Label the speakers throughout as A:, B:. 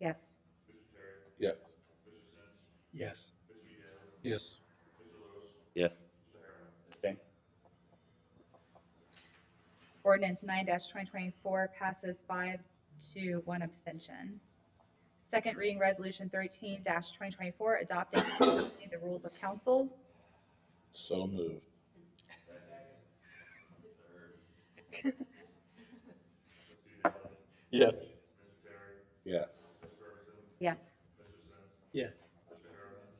A: Yes.
B: Yes.
C: Yes.
B: Yes.
D: Yes.
E: Ordinance nine twenty twenty-four passes five to one abstention. Second reading resolution thirteen twenty twenty-four adopting and implementing the rules of council.
B: So moved.
D: Yes.
B: Yes.
A: Yes.
C: Yes.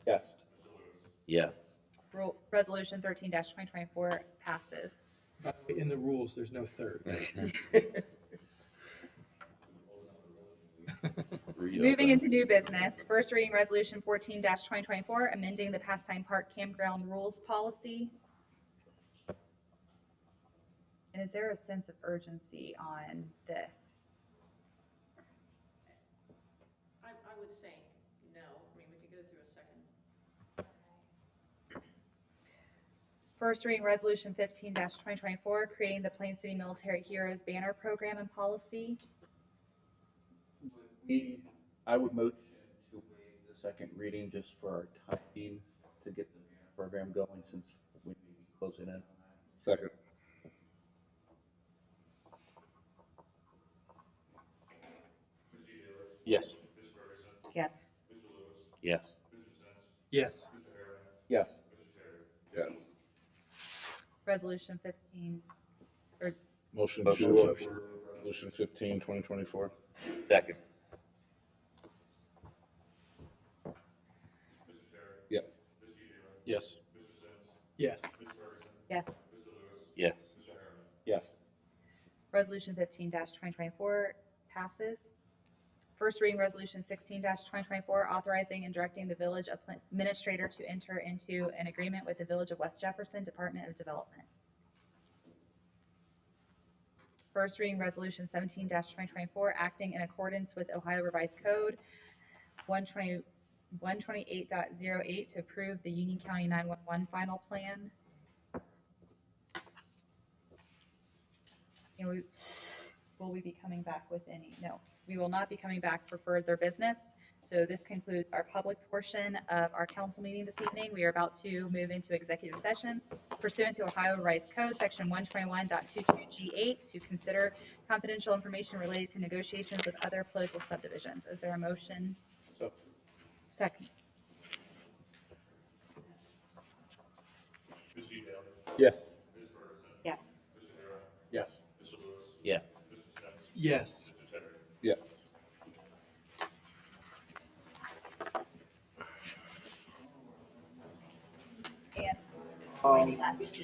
D: Yes. Yes.
E: Rule, resolution thirteen twenty twenty-four passes.
C: By the way, In the rules, there's no third.
E: Moving into new business, first reading resolution fourteen twenty twenty-four amending the pastime park campground rules policy. And is there a sense of urgency on this?
F: I, I would say no, I mean, we could go through a second.
E: First reading resolution fifteen twenty twenty-four, creating the Plain City Military Heroes Banner Program and Policy.
G: We, I would motion to waive the second reading just for our timing to get the program going since we may be closing in.
B: Second.
D: Yes.
A: Yes.
D: Yes.
C: Yes.
G: Yes,
B: Yes.
E: Resolution fifteen,
B: Motion
D: Motion.
B: to approve Resolution 15, 2024.
D: Second.
B: Yes.
D: Yes.
C: Yes.
A: Yes.
D: Yes.
G: yes,
E: resolution fifteen twenty twenty-four passes. First reading resolution sixteen twenty twenty-four, authorizing and directing the village administrator to enter into an agreement with the Village of West Jefferson Department of Development. First reading resolution seventeen twenty twenty-four, acting in accordance with Ohio Revised Code one twenty, one twenty-eight to approve the Union County nine-one-one final plan. And we, will we be coming back with any? No, we will not be coming back for further business. So this concludes our public portion of our council meeting this evening. We are about to move into executive session pursuant to Ohio Revised Code, section 121.22G8, to consider confidential information related to negotiations with other political subdivisions. Is there a motion?
G: so,
A: Second. Yes.
B: Yes.
G: yes.
D: Yes.
C: Yes.
B: Yes.
E: And
C: Um,
E: joining us.